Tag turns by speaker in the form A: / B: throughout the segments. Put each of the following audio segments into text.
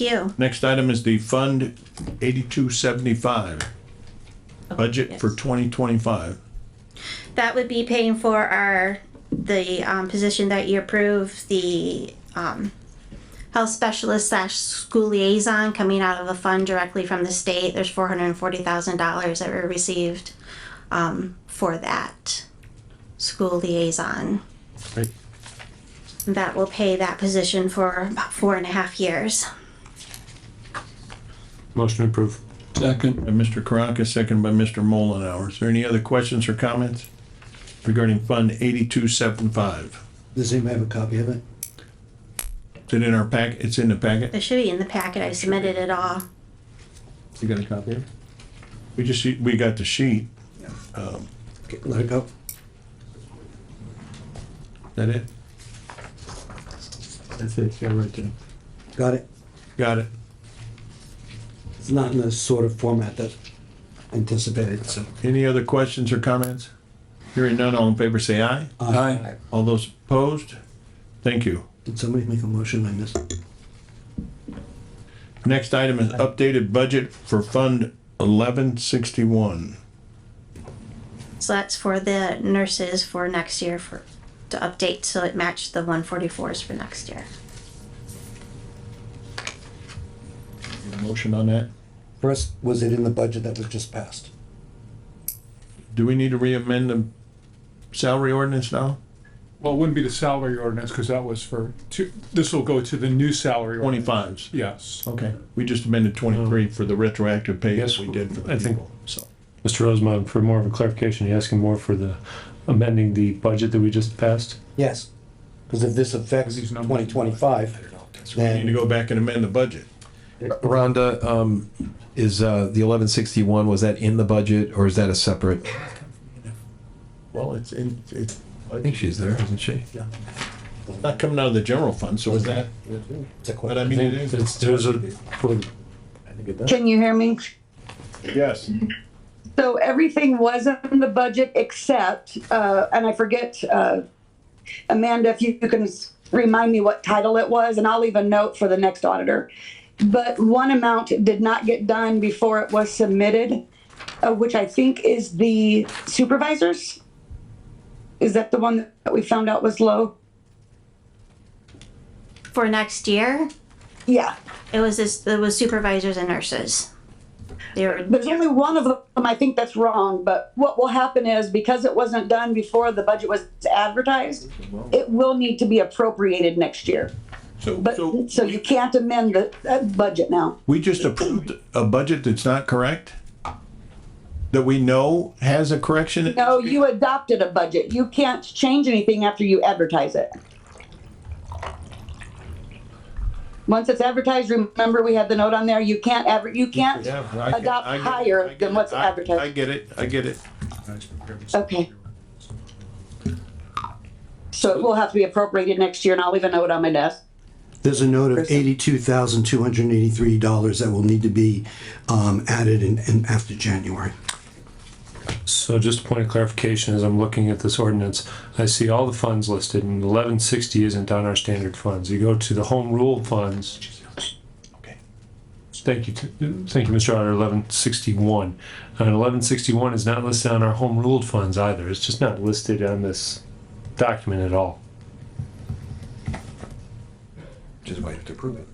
A: you.
B: Next item is the Fund eighty-two seventy-five. Budget for
A: yes.
B: twenty twenty-five.
A: That would be paying for our, the, um, position that you approve, the, um, health specialist slash school liaison coming out of a fund directly from the state. There's four hundred and forty thousand dollars that were received, um, for that school liaison.
B: Right.
A: That will pay that position for about four and a half years.
C: Motion approved.
D: Second,
B: By Mr. Karanka, second by Mr. Mullenhour. Is there any other questions or comments regarding Fund eighty-two seventy-five?
E: Does anybody have a copy of it?
B: Is it in our pack? It's in the packet?
A: It should be in the packet. I submitted it all.
B: You got a copy of it? We just, we got the sheet.
E: Okay, Let it go.
B: Is that it?
C: That's it, yeah, right there.
E: Got it?
B: Got it.
E: It's not in the sort of format that anticipated, so.
B: Any other questions or comments? Hearing none, all in favor say aye.
E: Uh,
D: aye.
B: All those opposed? Thank you.
E: Did somebody make a motion I missed?
B: Next item is updated budget for Fund eleven sixty-one.
A: So that's for the nurses for next year for, to update, so it matched the one forty-fours for next year.
B: Motion on that?
E: First, was it in the budget that was just passed?
B: Do we need to re-amend the salary ordinance now?
F: Well, it wouldn't be the salary ordinance, because that was for two, this will go to the new salary. ordinance.
B: Twenty-fives.
F: Yes.
B: Okay. We just amended twenty-three for the retroactive pay that
C: Yes,
B: we did for the
C: I think-
B: people, so.
C: Mr. Rosemont, for more of a clarification, you asking more for the amending the budget that we just passed?
E: Yes. Because if this affects
F: These numbers.
E: twenty twenty-five,
B: We Need to
E: then
B: go back and amend the budget.
G: Rhonda, um, is, uh, the eleven sixty-one, was that in the budget or is that a separate?
B: Well, it's in, it's
G: I think she's there, isn't she?
B: not coming out of the general fund, so is that,
E: it's a
B: but I
E: question.
B: mean, it is.
C: It's, there's a, for the
H: Can you hear me?
B: Yes.
H: So everything was in the budget except, uh, and I forget, uh, Amanda, if you you can s- remind me what title it was, and I'll leave a note for the next auditor. But one amount did not get done before it was submitted, uh, which I think is the supervisors. Is that the one that we found out was low?
A: For next year,
H: Yeah,
A: it was this, it was supervisors and nurses. They were,
H: there's only one of them, I think that's wrong, but what will happen is because it wasn't done before the budget was advertised, it will need to be appropriated next year.
B: So, so
H: But, so you can't amend the, uh budget now.
B: we just approved a budget that's not correct? That we know has a correction?
H: No, you adopted a budget. You can't change anything after you advertise it. Once it's advertised, remember we had the note on there, you can't adver, you can't
B: Yeah, I get-
H: adopt
B: I get- I
H: higher
B: get
H: than
B: it.
H: what's
B: I- I
H: advertised.
B: get it, I get it.
H: Okay. So it will have to be appropriated next year and I'll leave a note on my desk.
E: There's a note of eighty-two thousand, two hundred and eighty-three dollars that will need to be, um, added in, in after January.
C: So just a point of clarification, as I'm looking at this ordinance, I see all the funds listed and eleven sixty isn't on our standard funds. You go to the home rule funds. Thank you, t- thank you, Mr. Auditor, eleven sixty-one. And eleven sixty-one is not listed on our home ruled funds either. It's just not listed on this document at all.
G: Just waiting to prove it.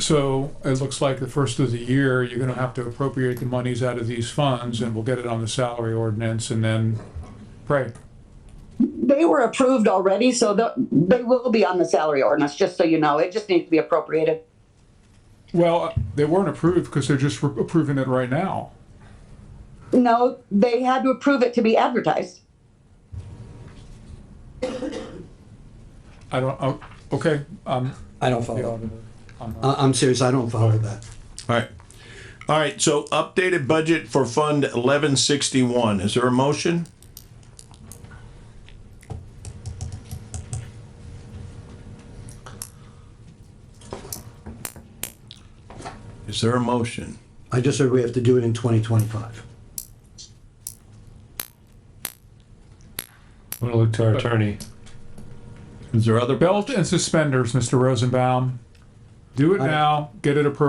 F: So it looks like the first of the year, you're gonna have to appropriate the monies out of these funds, and we'll get it on the salary ordinance, and then pray.
H: They were approved already, so they'll- they will be on the salary ordinance, just so you know. It just needs to be appropriated.
F: Well, uh, they weren't approved, because they're just re- approving it right now.
H: No, they had to approve it to be advertised.
F: I don't, oh, okay, um,
E: I don't follow. I, I'm serious, I don't follow that.
B: All right. All right, so updated budget for Fund eleven sixty-one. Is there a motion? Is there a motion?
E: I just heard we have to do it in twenty twenty-five.
C: I'm gonna look to our attorney.
B: Is there other?
F: belt and suspenders, Mr. Rosenbaum. Do it now, get it appropriated